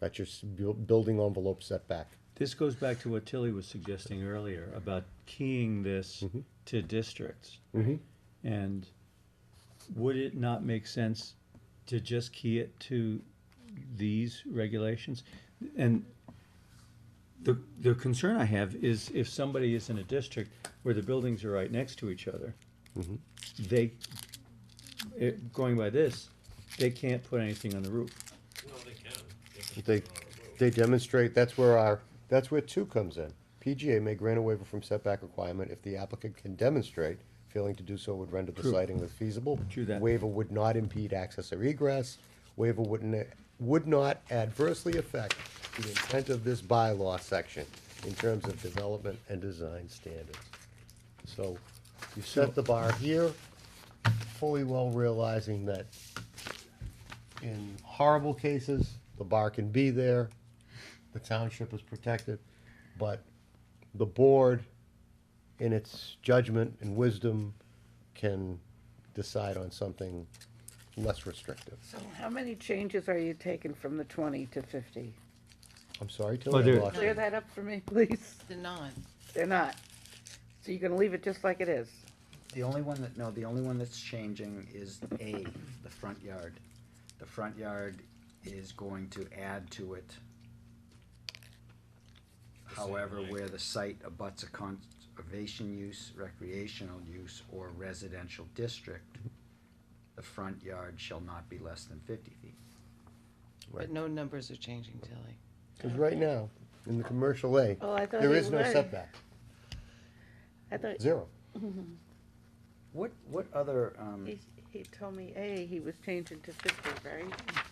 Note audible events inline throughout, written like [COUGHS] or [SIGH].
That's your s- bu- building envelope setback. This goes back to what Tilly was suggesting earlier about keying this to districts. And would it not make sense to just key it to these regulations? And the, the concern I have is if somebody is in a district where the buildings are right next to each other, Mm-hmm. they, it- going by this, they can't put anything on the roof. No, they can. if it's They, on a road. they demonstrate, that's where our, that's where two comes in. PGA may grant a waiver from setback requirement if the applicant can demonstrate failing to do so would render the True. sighting feasible. True that. Waiver would not impede access or egress. Waiver wouldn't, would not adversely affect the intent of this bylaw section in terms of development and design standards. So you set the bar here, fully well realizing that in horrible cases, the bar can be there, the township is protected, but the board, in its judgment and wisdom, can decide on something less restrictive. So how many changes are you taking from the twenty to fifty? I'm sorry, Oh, Tilly, there- I lost Clear you. that up for me, [LAUGHS] please. They're not. They're not. So you're gonna leave it just like it is? The only one that, no, the only one that's changing is A, the front yard. The front yard is going to add to it. However, where the site abuts a conservation use, recreational use, or residential district, the front yard shall not be less than fifty feet. Right. But no numbers are changing, Tilly. Because right now, in the commercial A, Well, Oh, I thought there you is no were. setback, I thought, zero. What, what other, um, he, he told me A, he was changing to fifty, right?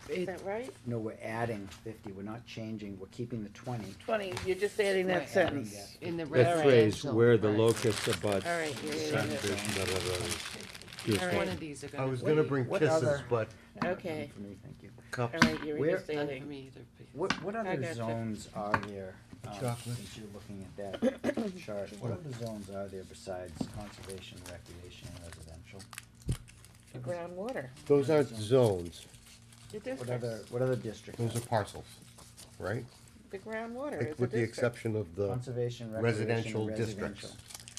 Is It- that right? no, we're adding fifty, we're not changing, we're keeping the twenty. Twenty, you're just adding Right, that adding sentence. In the That phrase, residential. where the right. locus abuts. All right, you're adding it. subdivision, blah, blah, blah, is- One of these are gonna. I was gonna bring what kisses, other- but Okay. For me, thank you. All cups. right, you're Where- just None for adding. me either. please. What, what other gotcha. zones are there? um, Chocolate. Since you're looking at [COUGHS] that chart, what other zones are there besides conservation, recreation, and residential? Groundwater. Those aren't zones, The What other, districts, what other districts? those are parcels, right? the groundwater is a With the district. exception of the Conservation, recreation, residential and districts. residential.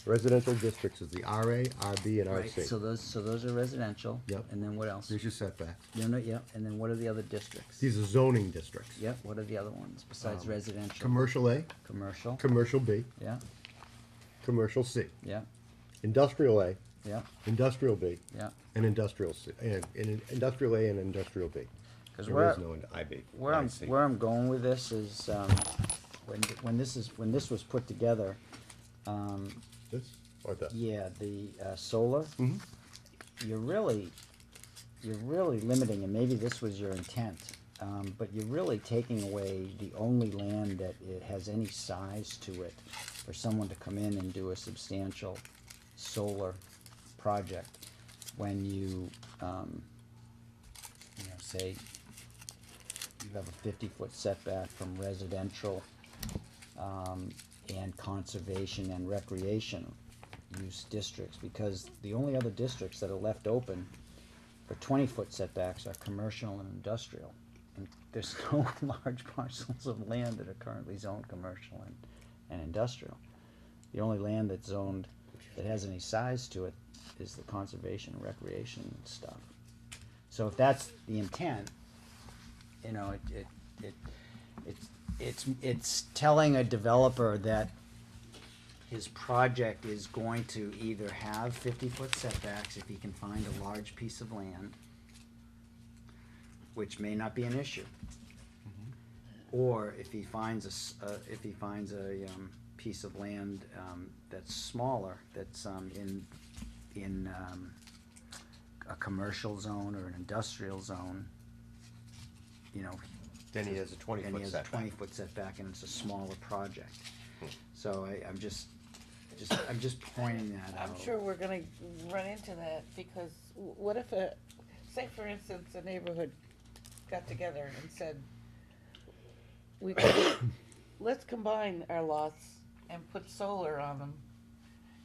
Residential districts is the RA, RB, and Right, so RC. those, so those are residential. Yep. And then what else? There's your setback. No, no, yep, and then what are the other districts? These are zoning districts. Yep, what are the other ones besides Um, residential? Commercial A, Commercial, commercial B, yeah, commercial C, yeah, industrial A, yeah, industrial B, yeah. and industrial C, and, and industrial A and industrial B. Cause There where, is no ind- IB. Where I'm, IC. where I'm going with this is, um, when, when this is, when this was put together, um, This or this? yeah, the, uh, solar. You're really, you're really limiting, and maybe this was your intent, um, but you're really taking away the only land that it has any size to it for someone to come in and do a substantial solar project when you, um, you know, say you have a fifty-foot setback from residential, um, and conservation and recreation use districts, because the only other districts that are left open for twenty-foot setbacks are commercial and industrial. And there's [LAUGHS] no large parcels of land that are currently zoned commercial and, and industrial. The only land that's zoned, that has any size to it, is the conservation and recreation stuff. So if that's the intent, you know, it, it, it, it's, it's, it's telling a developer that his project is going to either have fifty-foot setbacks if he can find a large piece of land, which may not be an issue. Or if he finds a, s- uh, if he finds a, um, piece of land, um, that's smaller, that's, um, in, in, um, a commercial zone or an industrial zone, you know, Then he has a and he twenty-foot has a setback. twenty-foot setback, and it's a smaller project. So I, I'm just, just, I'm just pointing that out. I'm sure we're gonna run into that, because w- what if a, say for instance, a neighborhood got together and said, we, [COUGHS] let's combine our lots and put solar on them,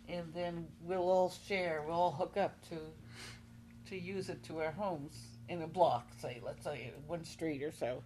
and then we'll all share, we'll all hook up to, to use it to our homes in a block, say, let's say, one street or so.